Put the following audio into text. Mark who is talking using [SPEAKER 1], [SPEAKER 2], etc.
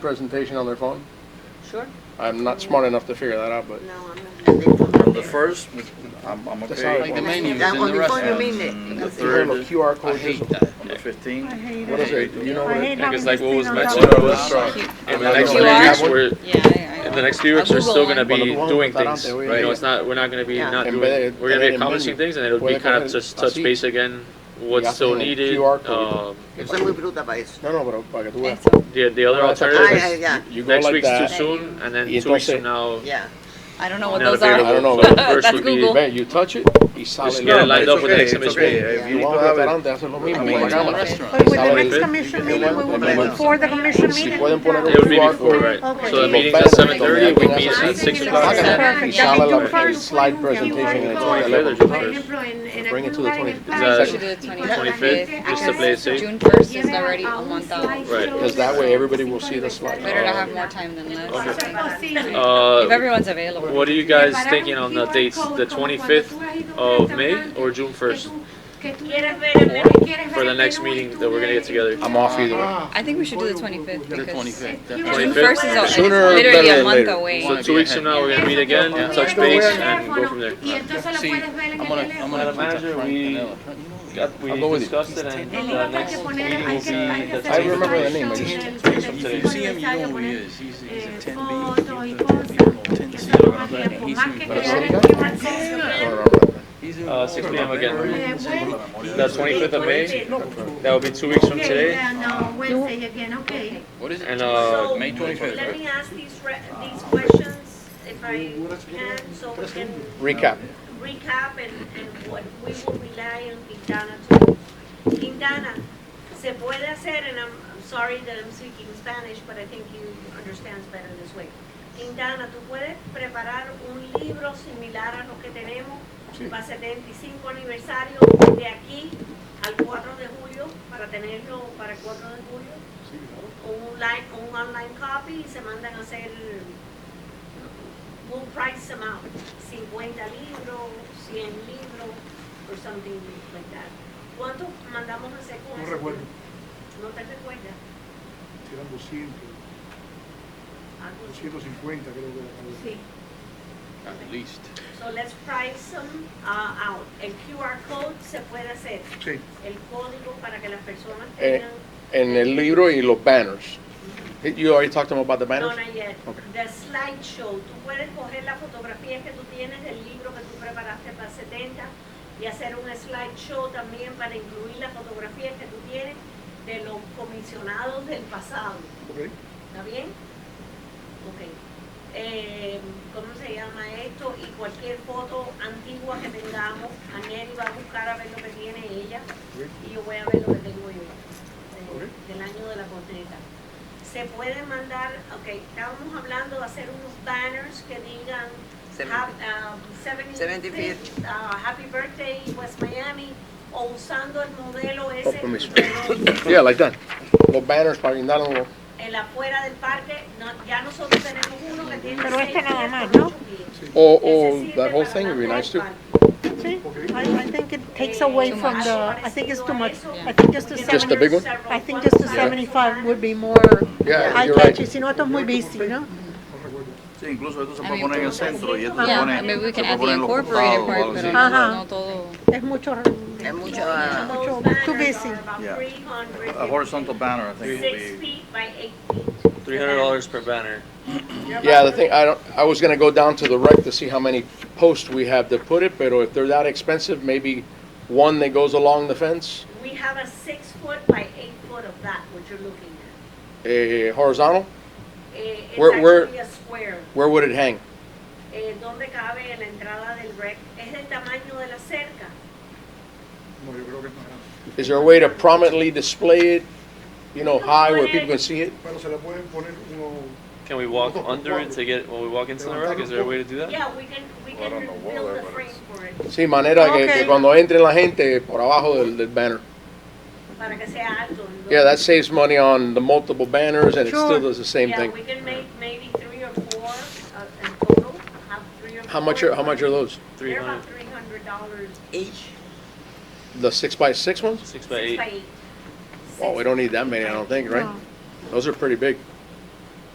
[SPEAKER 1] presentation on their phone?
[SPEAKER 2] Sure?
[SPEAKER 1] I'm not smart enough to figure that out, but.
[SPEAKER 2] No, I'm not.
[SPEAKER 3] The first, I'm, I'm
[SPEAKER 1] That's
[SPEAKER 3] okay.
[SPEAKER 1] not like the
[SPEAKER 3] On
[SPEAKER 1] menu
[SPEAKER 3] the
[SPEAKER 1] is
[SPEAKER 2] That
[SPEAKER 3] in
[SPEAKER 2] one
[SPEAKER 3] the
[SPEAKER 2] before you
[SPEAKER 3] restaurant.
[SPEAKER 2] mean
[SPEAKER 3] The
[SPEAKER 2] it.
[SPEAKER 3] third
[SPEAKER 1] Have a
[SPEAKER 3] is-
[SPEAKER 1] QR
[SPEAKER 3] I
[SPEAKER 1] code or
[SPEAKER 3] hate
[SPEAKER 1] something.
[SPEAKER 3] that. On the
[SPEAKER 4] I
[SPEAKER 3] fifteenth,
[SPEAKER 4] hate
[SPEAKER 1] What is it? Do you know
[SPEAKER 4] I
[SPEAKER 1] what it?
[SPEAKER 4] hate
[SPEAKER 5] I think
[SPEAKER 4] having
[SPEAKER 5] it's
[SPEAKER 4] to
[SPEAKER 5] like what was
[SPEAKER 4] stand on top
[SPEAKER 5] mentioned
[SPEAKER 4] of
[SPEAKER 3] Oh,
[SPEAKER 4] it.
[SPEAKER 3] that's right.
[SPEAKER 5] in
[SPEAKER 1] I
[SPEAKER 5] the next
[SPEAKER 1] know.
[SPEAKER 5] few
[SPEAKER 1] Yeah.
[SPEAKER 5] weeks, we're,
[SPEAKER 6] Yeah, I, I.
[SPEAKER 5] in the next few weeks,
[SPEAKER 6] I'll
[SPEAKER 5] we're still
[SPEAKER 6] Google
[SPEAKER 5] gonna
[SPEAKER 6] it.
[SPEAKER 5] be
[SPEAKER 1] Well, the
[SPEAKER 5] doing
[SPEAKER 1] one
[SPEAKER 5] things,
[SPEAKER 1] that we-
[SPEAKER 5] right? You know, it's not, we're not gonna be
[SPEAKER 2] Yeah.
[SPEAKER 5] not
[SPEAKER 1] En
[SPEAKER 5] doing,
[SPEAKER 1] vez de
[SPEAKER 5] we're
[SPEAKER 1] tener
[SPEAKER 5] gonna be
[SPEAKER 1] el
[SPEAKER 5] accomplishing
[SPEAKER 1] menú,
[SPEAKER 5] things and it'll
[SPEAKER 1] puede
[SPEAKER 5] be kind
[SPEAKER 1] coger
[SPEAKER 5] of just touch
[SPEAKER 1] así
[SPEAKER 5] base again,
[SPEAKER 1] y
[SPEAKER 5] what's
[SPEAKER 1] haces
[SPEAKER 5] still
[SPEAKER 1] el
[SPEAKER 5] needed,
[SPEAKER 1] QR code.
[SPEAKER 5] um,
[SPEAKER 2] Yo soy muy bruta para eso.
[SPEAKER 1] No, no, pero para que tú veas.
[SPEAKER 6] Eso,
[SPEAKER 5] the, the other
[SPEAKER 1] Ahora, esa cosa
[SPEAKER 2] Ay,
[SPEAKER 5] alternative
[SPEAKER 1] es-
[SPEAKER 2] ay,
[SPEAKER 5] is
[SPEAKER 2] ya,
[SPEAKER 1] You go
[SPEAKER 5] next
[SPEAKER 1] like
[SPEAKER 5] week's too
[SPEAKER 1] that.
[SPEAKER 5] soon
[SPEAKER 1] Y
[SPEAKER 5] and then two weeks
[SPEAKER 1] entonces-
[SPEAKER 5] from now,
[SPEAKER 2] ya.
[SPEAKER 6] I don't know what
[SPEAKER 5] not
[SPEAKER 6] those
[SPEAKER 1] I don't
[SPEAKER 6] are.
[SPEAKER 1] know,
[SPEAKER 5] available, so
[SPEAKER 6] but
[SPEAKER 5] first
[SPEAKER 6] that's
[SPEAKER 5] would be,
[SPEAKER 6] Google.
[SPEAKER 1] Ve, you touch it y sale.
[SPEAKER 5] just
[SPEAKER 1] el-
[SPEAKER 5] get it
[SPEAKER 3] No,
[SPEAKER 5] lined
[SPEAKER 3] it's
[SPEAKER 5] up with the
[SPEAKER 3] okay,
[SPEAKER 5] next
[SPEAKER 3] it's
[SPEAKER 5] image.
[SPEAKER 3] okay. If
[SPEAKER 1] Y
[SPEAKER 3] you
[SPEAKER 1] tú vas al
[SPEAKER 3] don't have it-
[SPEAKER 1] restaurante, haces lo mismo.
[SPEAKER 3] I
[SPEAKER 1] con la
[SPEAKER 3] mean, it's a
[SPEAKER 1] cámara.
[SPEAKER 3] restaurant.
[SPEAKER 4] But with the
[SPEAKER 1] Sale
[SPEAKER 4] next
[SPEAKER 1] el-
[SPEAKER 4] commission meeting, we will
[SPEAKER 1] el-
[SPEAKER 4] do it before the commission
[SPEAKER 1] Si
[SPEAKER 4] meeting.
[SPEAKER 1] pueden poner un
[SPEAKER 5] It would be
[SPEAKER 1] QR
[SPEAKER 5] before,
[SPEAKER 1] code.
[SPEAKER 5] right?
[SPEAKER 4] Okay.
[SPEAKER 5] So
[SPEAKER 4] Y
[SPEAKER 5] the meeting's
[SPEAKER 1] los
[SPEAKER 5] at seven thirty,
[SPEAKER 1] banners,
[SPEAKER 5] we
[SPEAKER 1] los
[SPEAKER 5] meet
[SPEAKER 1] banners,
[SPEAKER 5] at six
[SPEAKER 1] los
[SPEAKER 5] o'clock.
[SPEAKER 1] banners. Y sale
[SPEAKER 4] Perfect. That we do
[SPEAKER 1] la- el
[SPEAKER 4] first,
[SPEAKER 1] slide
[SPEAKER 4] we do the
[SPEAKER 1] presentation en el
[SPEAKER 4] first.
[SPEAKER 5] Further,
[SPEAKER 1] teléfono.
[SPEAKER 5] just
[SPEAKER 7] Por
[SPEAKER 5] first.
[SPEAKER 7] ejemplo, en, en
[SPEAKER 1] Bring it to
[SPEAKER 7] aquel
[SPEAKER 1] the 20. Is
[SPEAKER 7] lugar en el playa,
[SPEAKER 5] that-
[SPEAKER 6] Should do the
[SPEAKER 7] y cuando
[SPEAKER 6] 25th.
[SPEAKER 7] la
[SPEAKER 5] 25th,
[SPEAKER 7] gente
[SPEAKER 5] just to
[SPEAKER 7] haga
[SPEAKER 5] play it
[SPEAKER 7] eso,
[SPEAKER 5] safe.
[SPEAKER 6] June 1st is
[SPEAKER 7] lleven a-
[SPEAKER 6] already
[SPEAKER 7] a
[SPEAKER 6] a
[SPEAKER 7] un
[SPEAKER 4] um,
[SPEAKER 6] month out.
[SPEAKER 7] slideshow
[SPEAKER 5] Right.
[SPEAKER 1] Because that way
[SPEAKER 7] de
[SPEAKER 1] everybody will see the slide.
[SPEAKER 7] 55
[SPEAKER 6] Better to have more time than
[SPEAKER 7] Por
[SPEAKER 6] this.
[SPEAKER 7] ser posible.
[SPEAKER 5] Uh,
[SPEAKER 6] If everyone's available.
[SPEAKER 5] What are you guys thinking on the dates, the 25th of May or June 1st?
[SPEAKER 7] Que tú
[SPEAKER 4] ¿Quieres
[SPEAKER 7] quieres
[SPEAKER 4] ver el menú?
[SPEAKER 7] ver
[SPEAKER 5] For the
[SPEAKER 7] el
[SPEAKER 5] next
[SPEAKER 7] menú y
[SPEAKER 5] meeting
[SPEAKER 7] tú
[SPEAKER 5] that we're gonna
[SPEAKER 7] le-
[SPEAKER 5] get together.
[SPEAKER 1] I'm off either way.
[SPEAKER 4] Ah,
[SPEAKER 6] I think we should do the 25th
[SPEAKER 3] the
[SPEAKER 6] because
[SPEAKER 3] twenty-fifth.
[SPEAKER 7] June
[SPEAKER 6] June
[SPEAKER 5] 25th?
[SPEAKER 6] 1st is al- it's
[SPEAKER 1] Sooner
[SPEAKER 6] literally
[SPEAKER 1] better
[SPEAKER 6] a
[SPEAKER 1] than
[SPEAKER 6] month
[SPEAKER 1] later.
[SPEAKER 6] away.
[SPEAKER 5] So two weeks from now, we're gonna meet again,
[SPEAKER 3] Yeah.
[SPEAKER 5] touch base and go from there.
[SPEAKER 7] Y entonces lo
[SPEAKER 3] See,
[SPEAKER 7] puedes ver en
[SPEAKER 3] I'm
[SPEAKER 7] el
[SPEAKER 3] gonna, I'm
[SPEAKER 7] teléfono.
[SPEAKER 3] gonna
[SPEAKER 5] Manager,
[SPEAKER 3] contact Frank
[SPEAKER 5] we-
[SPEAKER 3] Pinella.
[SPEAKER 5] Got- We
[SPEAKER 1] I'll go with you.
[SPEAKER 5] discussed it
[SPEAKER 7] El
[SPEAKER 5] and the
[SPEAKER 7] libro que hay
[SPEAKER 5] next
[SPEAKER 7] que poner,
[SPEAKER 5] meeting
[SPEAKER 7] hay
[SPEAKER 5] will
[SPEAKER 7] que, hay
[SPEAKER 5] be
[SPEAKER 7] que
[SPEAKER 5] the
[SPEAKER 1] I remember the
[SPEAKER 7] hacer
[SPEAKER 1] name,
[SPEAKER 7] un
[SPEAKER 1] but
[SPEAKER 7] slideshow
[SPEAKER 1] it's-
[SPEAKER 7] del-
[SPEAKER 3] If
[SPEAKER 7] del
[SPEAKER 3] you see him, you know
[SPEAKER 7] aniversario,
[SPEAKER 3] who he
[SPEAKER 7] poner
[SPEAKER 3] is. He's, he's
[SPEAKER 7] eh,
[SPEAKER 3] a ten
[SPEAKER 7] fotos y
[SPEAKER 3] B.
[SPEAKER 7] cosas,
[SPEAKER 3] Ten
[SPEAKER 7] que
[SPEAKER 3] C.
[SPEAKER 7] se toma tiempo,
[SPEAKER 3] He's
[SPEAKER 7] más que
[SPEAKER 3] in-
[SPEAKER 1] Pero
[SPEAKER 7] crear
[SPEAKER 1] sí.
[SPEAKER 7] el QR code.
[SPEAKER 1] No, no, no.
[SPEAKER 3] he's in-
[SPEAKER 5] Uh, 6 p.m. again.
[SPEAKER 7] Eh, Wednesday-
[SPEAKER 5] The 25th of May, that will be two weeks from
[SPEAKER 7] okay,
[SPEAKER 5] today,
[SPEAKER 7] yeah, no, Wednesday again, okay.
[SPEAKER 3] What is it?
[SPEAKER 5] and uh,
[SPEAKER 3] May twenty-fifth,
[SPEAKER 4] Let
[SPEAKER 3] right?
[SPEAKER 4] me ask these re, these questions if I can, so we can
[SPEAKER 1] Recap.
[SPEAKER 4] recap and, and what we will rely on Quintana to do. Quintana, se puede hacer, and I'm, I'm sorry that I'm speaking Spanish, but I think you understand better this way. Quintana, tú puedes preparar un libro similar a lo que tenemos para 75 aniversario de aquí al 4 de julio, para tenerlo para el 4 de julio? un online, un online copy y se mandan a hacer un price amount, 50 libros, 100 libros, or something like that. ¿Cuántos mandamos a hacer con
[SPEAKER 8] No
[SPEAKER 4] eso?
[SPEAKER 8] recuerdo,
[SPEAKER 4] ¿No te recuerdas?
[SPEAKER 8] si eran 200,
[SPEAKER 4] Algo así.
[SPEAKER 8] 250 creo que era.
[SPEAKER 4] Sí.
[SPEAKER 3] At least.
[SPEAKER 4] So let's price them uh, out. El QR code se puede hacer,
[SPEAKER 8] Sí,
[SPEAKER 4] el código para que las personas
[SPEAKER 1] Eh,
[SPEAKER 4] tengan.
[SPEAKER 1] En el libro y los banners. You already talked to them about the
[SPEAKER 4] No,
[SPEAKER 1] banners?
[SPEAKER 4] no, yet.
[SPEAKER 1] Okay.
[SPEAKER 4] The slideshow, tú puedes coger las fotografías que tú tienes del libro que tú preparaste para 70 y hacer un slideshow también para incluir las fotografías que tú tienes de los comisionados del pasado.
[SPEAKER 8] ok.
[SPEAKER 4] ¿Está bien? Ok. Eh, ¿Cómo se llama esto? Y cualquier foto antigua que tengamos, Aniel va a buscar a ver lo que tiene ella y yo voy a ver lo que tengo yo de-
[SPEAKER 8] Ok.
[SPEAKER 4] del año de la corneta. Se puede mandar, ok, estábamos hablando de hacer unos banners que digan hap- um, 75th, uh, Happy Birthday West Miami o usando el modelo ese.
[SPEAKER 1] permiso.
[SPEAKER 4] pero-
[SPEAKER 1] Yeah, like that. Los banners para guindarlos.
[SPEAKER 4] en la afuera del parque, no- ya nosotros tenemos uno que tiene
[SPEAKER 8] Pero este
[SPEAKER 4] seis
[SPEAKER 8] nada
[SPEAKER 4] pies
[SPEAKER 8] más,
[SPEAKER 4] por
[SPEAKER 8] ¿no?
[SPEAKER 4] ocho pies.
[SPEAKER 1] Or, or
[SPEAKER 4] Ese sirve
[SPEAKER 1] Oh, that whole
[SPEAKER 4] para
[SPEAKER 1] thing would be
[SPEAKER 4] dar
[SPEAKER 1] nice too.
[SPEAKER 4] golpe.
[SPEAKER 8] Sí,
[SPEAKER 4] Sí.
[SPEAKER 8] I, I think it takes
[SPEAKER 4] Eh,
[SPEAKER 8] away
[SPEAKER 6] Too
[SPEAKER 8] from
[SPEAKER 6] much.
[SPEAKER 8] the, I think it's too much.
[SPEAKER 4] Algo
[SPEAKER 8] I think just
[SPEAKER 4] parecido
[SPEAKER 8] the
[SPEAKER 1] Just the
[SPEAKER 4] a eso,
[SPEAKER 8] seven,
[SPEAKER 1] big one?
[SPEAKER 4] porque
[SPEAKER 8] I think just the
[SPEAKER 4] Yeah.
[SPEAKER 8] 75 would be more
[SPEAKER 1] Yeah, you're
[SPEAKER 8] eye-catchy,
[SPEAKER 1] right.
[SPEAKER 8] si no esto es muy busy, ¿no? No recuerdo.
[SPEAKER 3] Sí, incluso esto se
[SPEAKER 6] I
[SPEAKER 3] puede
[SPEAKER 6] mean,
[SPEAKER 3] poner en el centro y esto se
[SPEAKER 6] Yeah,
[SPEAKER 3] pone.
[SPEAKER 6] I mean, we can
[SPEAKER 3] se
[SPEAKER 6] add the
[SPEAKER 3] pone en los
[SPEAKER 6] incorporated
[SPEAKER 3] costados o algo
[SPEAKER 6] part, pero
[SPEAKER 3] así.
[SPEAKER 8] Ajá.
[SPEAKER 6] no todo.
[SPEAKER 8] Es mucho,
[SPEAKER 2] Es mucho,
[SPEAKER 4] Those
[SPEAKER 2] ah,
[SPEAKER 8] mucho-
[SPEAKER 4] banners
[SPEAKER 8] too busy.
[SPEAKER 4] are about
[SPEAKER 3] Yeah.
[SPEAKER 4] 300
[SPEAKER 3] A horizontal banner, I think, would
[SPEAKER 4] Six
[SPEAKER 3] be.
[SPEAKER 4] feet by eight feet.
[SPEAKER 5] three hundred dollars per banner.
[SPEAKER 1] Yeah, the thing, I don't, I was gonna go down to the rec to see how many posts we have to put it, but if they're that expensive, maybe one that goes along the fence,
[SPEAKER 4] We have a six foot by eight foot of that, what you're looking at.
[SPEAKER 1] eh, horizontal,
[SPEAKER 4] Eh, It's
[SPEAKER 1] Where- where-
[SPEAKER 4] actually a square.
[SPEAKER 1] where would it hang?
[SPEAKER 4] eh, donde cabe la entrada del rec. Es el tamaño de la cerca.
[SPEAKER 8] No, yo creo que es más grande.
[SPEAKER 1] Is there a way to prominently display it, you know, high where people can see it?
[SPEAKER 8] Pero se le pueden poner uno,
[SPEAKER 5] Can we walk under it to get, when we walk into the rock, is there a way to do that?
[SPEAKER 4] Yeah, we can, we
[SPEAKER 3] Well, I
[SPEAKER 4] can
[SPEAKER 3] don't know what
[SPEAKER 4] build a
[SPEAKER 3] that
[SPEAKER 4] frame
[SPEAKER 3] is.
[SPEAKER 4] for it,
[SPEAKER 1] Sí, manera que, que
[SPEAKER 8] Ok.
[SPEAKER 1] cuando entre la gente por abajo del, del banner.
[SPEAKER 4] para que sea alto. ¿no?
[SPEAKER 1] Yeah, that saves money on the multiple banners and it still
[SPEAKER 8] Sure.
[SPEAKER 1] does the same
[SPEAKER 4] Yeah,
[SPEAKER 1] thing.
[SPEAKER 4] we can make maybe three or four, uh, in total, have three or four.
[SPEAKER 1] How much are, how much are those?
[SPEAKER 5] Three
[SPEAKER 4] They're about
[SPEAKER 5] hundred,
[SPEAKER 4] three hundred dollars,
[SPEAKER 2] Each.
[SPEAKER 1] The six by six ones?
[SPEAKER 5] six by
[SPEAKER 4] six
[SPEAKER 5] eight.
[SPEAKER 4] by eight.
[SPEAKER 1] Well, we don't need that many, I don't think, right?
[SPEAKER 8] no.
[SPEAKER 1] Those are pretty big.